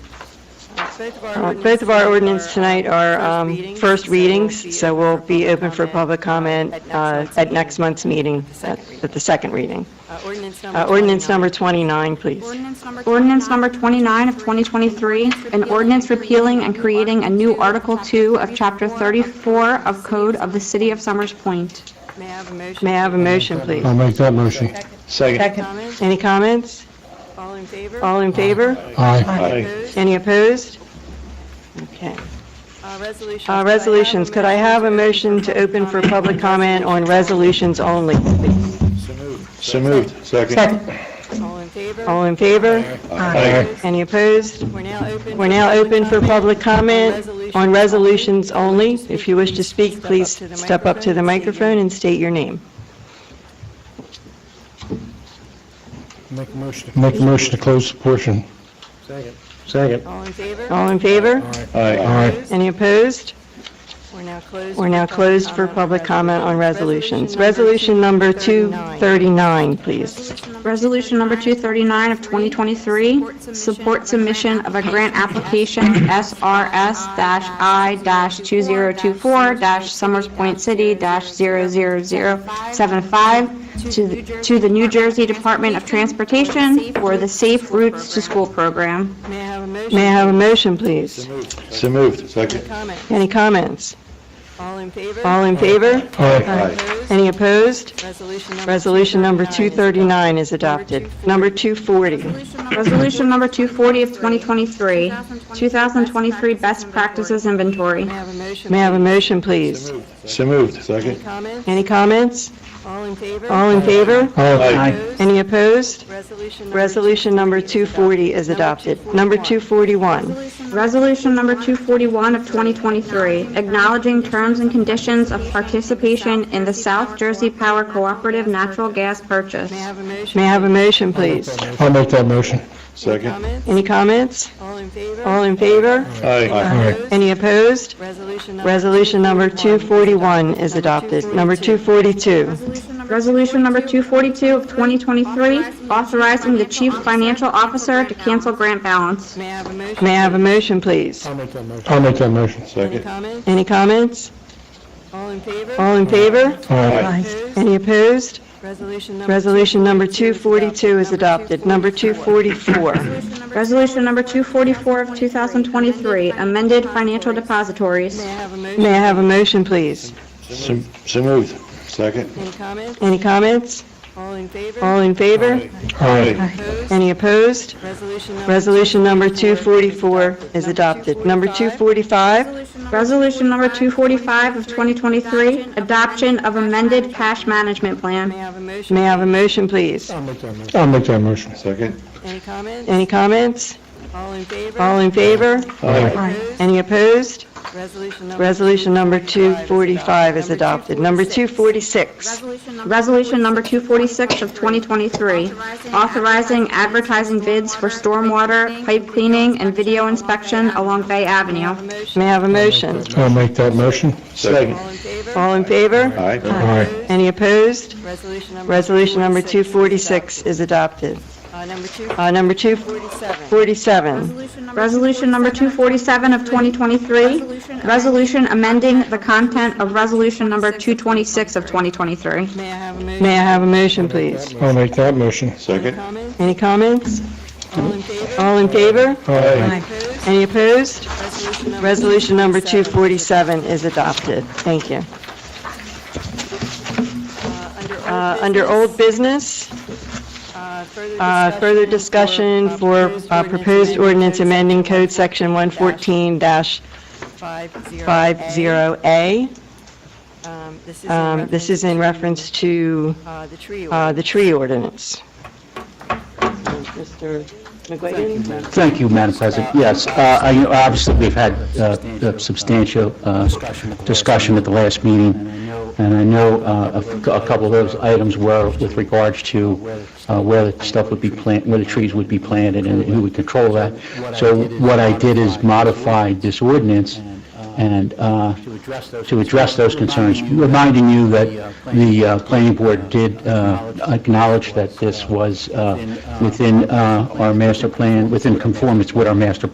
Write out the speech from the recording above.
Both of our Uh, ordinances. Both of our ordinance tonight are uh, first um, readings, first so we'll readings, so we'll be open for public comment uh, at month's next month's meeting, second at reading. at the second reading. meeting. Uh, Ordinance Uh, Ordinance number 29. 29, please. Ordinance number. Ordinance number 29 of 2023, an ordinance repealing and creating a new Article 2 of Chapter 34 of Code of the City of Summers Point. May I have a motion? May I have a motion, please? I'll make that motion. Second. Comments? Any comments? All in favor? All in favor? Aye. Opposed? Any opposed? Okay. Uh, Resolutions. Uh, Resolutions, could I have a motion to open for public comment on resolutions only, please? So moved. Second. All in favor? All in favor? Aye. Any opposed? We're now open. We're now open for public comment on resolutions only. If you wish to speak, Step up please to the step up to the microphone and state your name. Make a motion. Make a motion to close the portion. Second. Second. All in favor? All in favor? Aye. Aye. Opposed? Any opposed? We're now closed. We're now for public closed for comment on public comment on resolutions. Resolution Resolution number number 239. 239, please. Resolution number 239 of 2023, support submission of a grant application SRS-I-2024-Summers Point City-00075 to the- to the New Jersey Department of Transportation for the Safe Routes to School program. May I have a motion? May I have a motion, please? So moved. Second. Comment. Any comments? All in favor? All in favor? Aye. Opposed? Any opposed? Resolution number. Resolution number 239 239 is adopted. Number 240. Resolution number 240 of 2023, 2023 Best Practices Inventory. May I have a motion? May I have a motion, please? So moved. Any Second. comments? Any comments? All in favor? All in favor? Aye. Opposed? Any opposed? Resolution number. Resolution number 240 is adopted. Number 241. Resolution number 241 of 2023, acknowledging terms and conditions of participation in the South Jersey Power Cooperative Natural Gas Purchase. May I have a motion? May I have a motion, please? I'll make that motion. Second. Comments? Any comments? All in favor? All in favor? Aye. Opposed? Any opposed? Resolution number. Resolution number 241 is Number adopted. Number 242. Resolution number 242 of 2023, authorizing the Chief Financial Officer to cancel grant balance. May I have a motion? May I have a motion, please? I'll make that motion. I'll make that motion. Any Second. comments? Any comments? All in favor? All in favor? Aye. Opposed? Any opposed? Resolution number. Resolution number 242 242 is adopted. Number 244. Resolution number 244 of 2023, amended financial depositories. May I have a motion? May I have a motion, please? So so moved. Second. Any comments? Any comments? All in favor? All in favor? Aye. Opposed? Any opposed? Resolution number. Resolution number 244 is adopted. Number 245, Resolution number 245 of 2023, adoption of amended cash management May I plan. have a motion? may I have a motion, please? I'll make that motion. I'll make that motion. Second. Any comments? Any comments? All in favor? All in favor? Aye. Opposed? Any opposed? Resolution number. Resolution number 245 is adopted. Number 240. 246, Resolution number 246 of 2023, authorizing advertising bids for stormwater, pipe cleaning, and video inspection along Bay Avenue. may I have a motion? I'll make that motion. Second. All in favor? All in favor? Aye. Aye. Any opposed? Resolution number. Resolution number 246 246 is adopted. Uh, number Uh, Number Uh, 247. 247, Resolution number 247 of 2023, resolution amending the content of resolution number 226 of 2023. May I have a motion? may I have a motion, please? I'll make that motion. Any Second. comments? Any comments? All in favor? All in favor? Aye. Opposed? Any opposed? Resolution number. Resolution number 247 is adopted. Thank you. Uh, Under old Uh, Under old business, uh, uh, further discussion for uh, proposed ordinance amending code section 114-50A. 50A. Um, This is in Um, This is in reference to uh, the tree order. uh, the tree ordinance. Mr. McGuigan? Thank you, Madam President. Yes, uh, I- you know, obviously, we've had uh, a substantial uh, discussion at the last meeting, and I know uh, a a couple of those items were with regards to uh, where the stuff would be planted, where the trees would be planted, and who would control that. So what I did is modified this ordinance and uh, to address those concerns, reminding you that the uh, planning board did uh, acknowledge that this was uh, within uh, our master plan, within conformance with our master